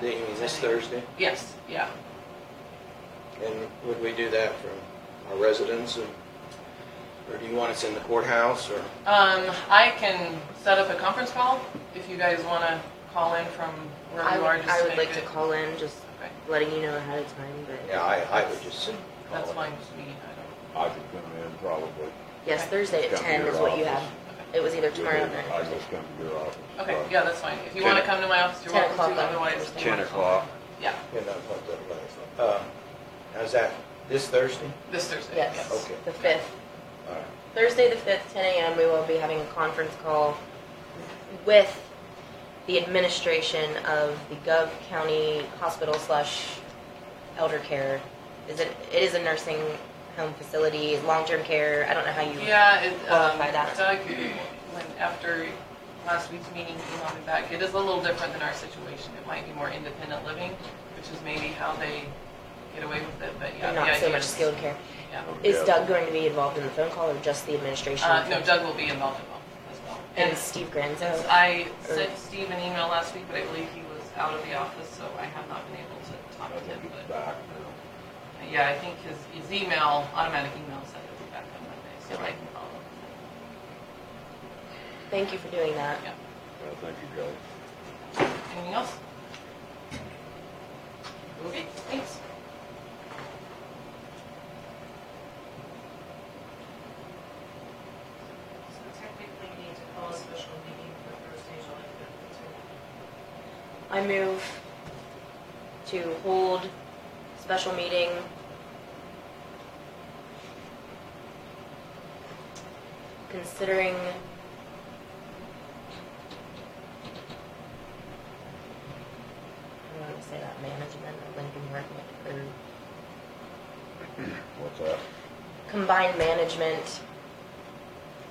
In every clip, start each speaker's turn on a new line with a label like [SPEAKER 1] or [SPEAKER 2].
[SPEAKER 1] They- You mean this Thursday?
[SPEAKER 2] Yes, yeah.
[SPEAKER 1] And would we do that from our residence and, or do you want us in the courthouse or?
[SPEAKER 2] Um, I can set up a conference call if you guys wanna call in from wherever
[SPEAKER 3] I
[SPEAKER 2] you are,
[SPEAKER 3] would,
[SPEAKER 2] just
[SPEAKER 3] I
[SPEAKER 2] to
[SPEAKER 3] would
[SPEAKER 2] make
[SPEAKER 3] like to
[SPEAKER 2] it.
[SPEAKER 3] call in, just
[SPEAKER 2] Okay,
[SPEAKER 3] letting you know ahead of time, but
[SPEAKER 1] Yeah, I, I would just.
[SPEAKER 2] That's fine with me, I
[SPEAKER 4] I could come in probably.
[SPEAKER 3] yes,
[SPEAKER 2] Okay.
[SPEAKER 3] Thursday at
[SPEAKER 4] Come to
[SPEAKER 3] ten
[SPEAKER 4] your
[SPEAKER 3] is what you have.
[SPEAKER 4] office.
[SPEAKER 3] It was either
[SPEAKER 4] You'll
[SPEAKER 3] tomorrow
[SPEAKER 4] do-
[SPEAKER 3] night.
[SPEAKER 4] I just come to your office.
[SPEAKER 2] don't, okay,
[SPEAKER 4] Right.
[SPEAKER 2] yeah, that's fine. If you wanna
[SPEAKER 4] Ten-
[SPEAKER 2] come to my office, you're
[SPEAKER 3] 10
[SPEAKER 2] welcome to,
[SPEAKER 3] o'clock.
[SPEAKER 2] otherwise. you
[SPEAKER 4] Ten
[SPEAKER 2] wanna call.
[SPEAKER 4] o'clock.
[SPEAKER 2] Yeah,
[SPEAKER 1] You know, what the- uh, How's that, this Thursday?
[SPEAKER 2] this Thursday,
[SPEAKER 3] Yes,
[SPEAKER 2] yes.
[SPEAKER 1] Okay.
[SPEAKER 3] the fifth.
[SPEAKER 1] All right.
[SPEAKER 3] Thursday the fifth, ten AM, we will be having a conference call with the administration of the Gov County Hospital slash Elder Care. Is it, it is a nursing home facility, long-term care, I don't know how you.
[SPEAKER 2] Yeah, it, um,
[SPEAKER 3] Qualify that.
[SPEAKER 2] Doug, when, after last week's meeting, emailed me back, it is a little different than our situation. It might be more independent living, which is maybe how they get away with it, but yeah.
[SPEAKER 3] and
[SPEAKER 2] the
[SPEAKER 3] Not so
[SPEAKER 2] idea
[SPEAKER 3] much
[SPEAKER 2] is-
[SPEAKER 3] skilled care.
[SPEAKER 2] Yeah.
[SPEAKER 3] Is
[SPEAKER 4] Yeah.
[SPEAKER 3] Doug going to be involved in the phone call or just the administration?
[SPEAKER 2] Uh, no, Doug will be involved as well, as well.
[SPEAKER 3] And Steve
[SPEAKER 2] Since
[SPEAKER 3] Granzo? Uh,
[SPEAKER 2] I sent Steve an email last week, but I believe he was out of the office, so I have not been able to
[SPEAKER 4] I
[SPEAKER 2] talk to him.
[SPEAKER 4] think it's
[SPEAKER 2] But
[SPEAKER 4] back now.
[SPEAKER 2] yeah, I think his, his email, automatic email said it was back on Monday, so I can follow up.
[SPEAKER 3] Thank you for doing that.
[SPEAKER 2] Yeah.
[SPEAKER 4] Well, thank you, Joe.
[SPEAKER 2] Anything else? Okay, thanks.
[SPEAKER 5] So technically, we need to call a special meeting for Thursday, July fifth.
[SPEAKER 3] I move to hold special meeting. Considering. I don't want to say that management of Lincoln Park, or
[SPEAKER 4] What's that?
[SPEAKER 3] combined management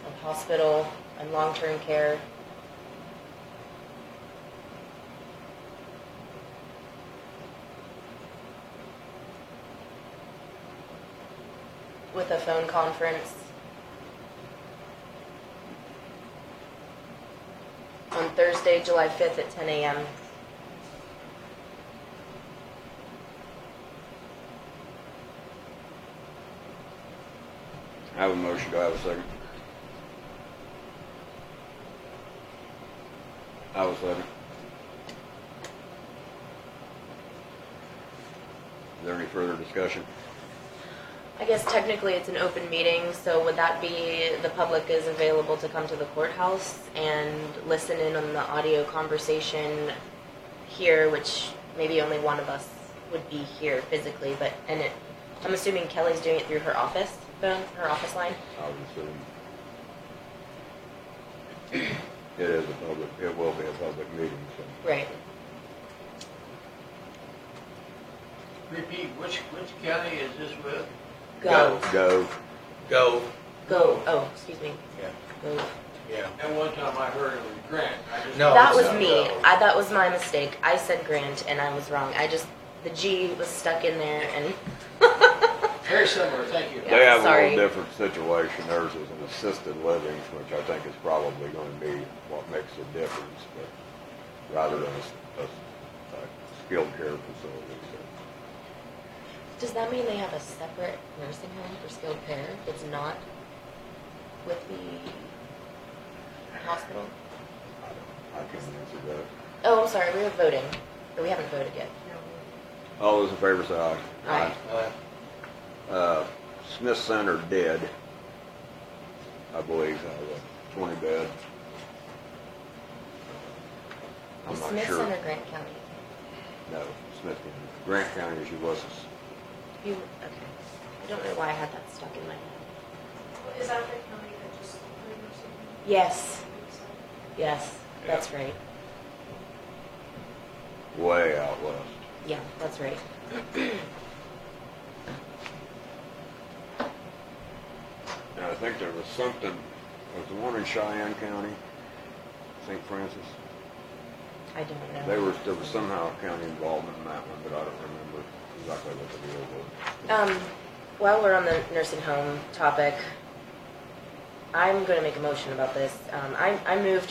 [SPEAKER 3] of hospital and long-term care. With a phone conference. On Thursday, July fifth at ten AM.
[SPEAKER 4] I have a motion, do I have a second? I have a second. Is there any further discussion?
[SPEAKER 3] I guess technically it's an open meeting, so would that be the public is available to come to the courthouse and listen in on the audio conversation here, which maybe only one of us would be here physically, but, and it, I'm assuming Kelly's doing it through her office phone, her office line?
[SPEAKER 4] I would assume. It is a public, it will be a public meeting, so.
[SPEAKER 3] Right.
[SPEAKER 6] Repeat, which, which county is this with?
[SPEAKER 3] Go,
[SPEAKER 4] Go.
[SPEAKER 1] Go,
[SPEAKER 3] go, oh, excuse me.
[SPEAKER 1] Yeah.
[SPEAKER 3] Go.
[SPEAKER 1] yeah.
[SPEAKER 6] At one time I heard it was Grant. I just-
[SPEAKER 1] No,
[SPEAKER 3] That
[SPEAKER 1] it's uh,
[SPEAKER 3] was
[SPEAKER 1] not
[SPEAKER 3] me,
[SPEAKER 1] go.
[SPEAKER 3] I, that was my mistake, I said Grant and I was wrong, I just, the G was stuck in there and.
[SPEAKER 6] Very similar, thank you.
[SPEAKER 3] Yeah.
[SPEAKER 4] They have a
[SPEAKER 3] sorry.
[SPEAKER 4] little different situation. Theirs is an assisted living, which I think is probably going to be what makes the difference, but rather than a, s- a s- a skilled care facility. So
[SPEAKER 3] Does that mean they have a separate nursing home for skilled care that's not with the hospital?
[SPEAKER 4] I don't- I can't answer that.
[SPEAKER 3] Oh, I'm sorry, we were voting, or we haven't voted yet.
[SPEAKER 4] All those in favor say aye.
[SPEAKER 3] Aye.
[SPEAKER 1] Uh,
[SPEAKER 4] Uh, Smith Center did, I believe, uh, twenty bed. I'm not
[SPEAKER 3] Smith
[SPEAKER 4] sure.
[SPEAKER 3] Center, Grant County.
[SPEAKER 4] No, Smith County. Grant County issue wasn't
[SPEAKER 3] You, okay. I don't know why I had that stuck in my head.
[SPEAKER 5] Is that the county that just, approved or something?
[SPEAKER 3] Yes, yes, that's right.
[SPEAKER 4] way out west.
[SPEAKER 3] Yeah, that's right.
[SPEAKER 4] And I think there was something, was the one in Cheyenne County, St. Francis?
[SPEAKER 3] I don't know.
[SPEAKER 4] They were, there was somehow county involvement in that one, but I don't remember exactly what the deal was.
[SPEAKER 3] Um, while we're on the nursing home topic, I'm gonna make a motion about this. Um, I, I move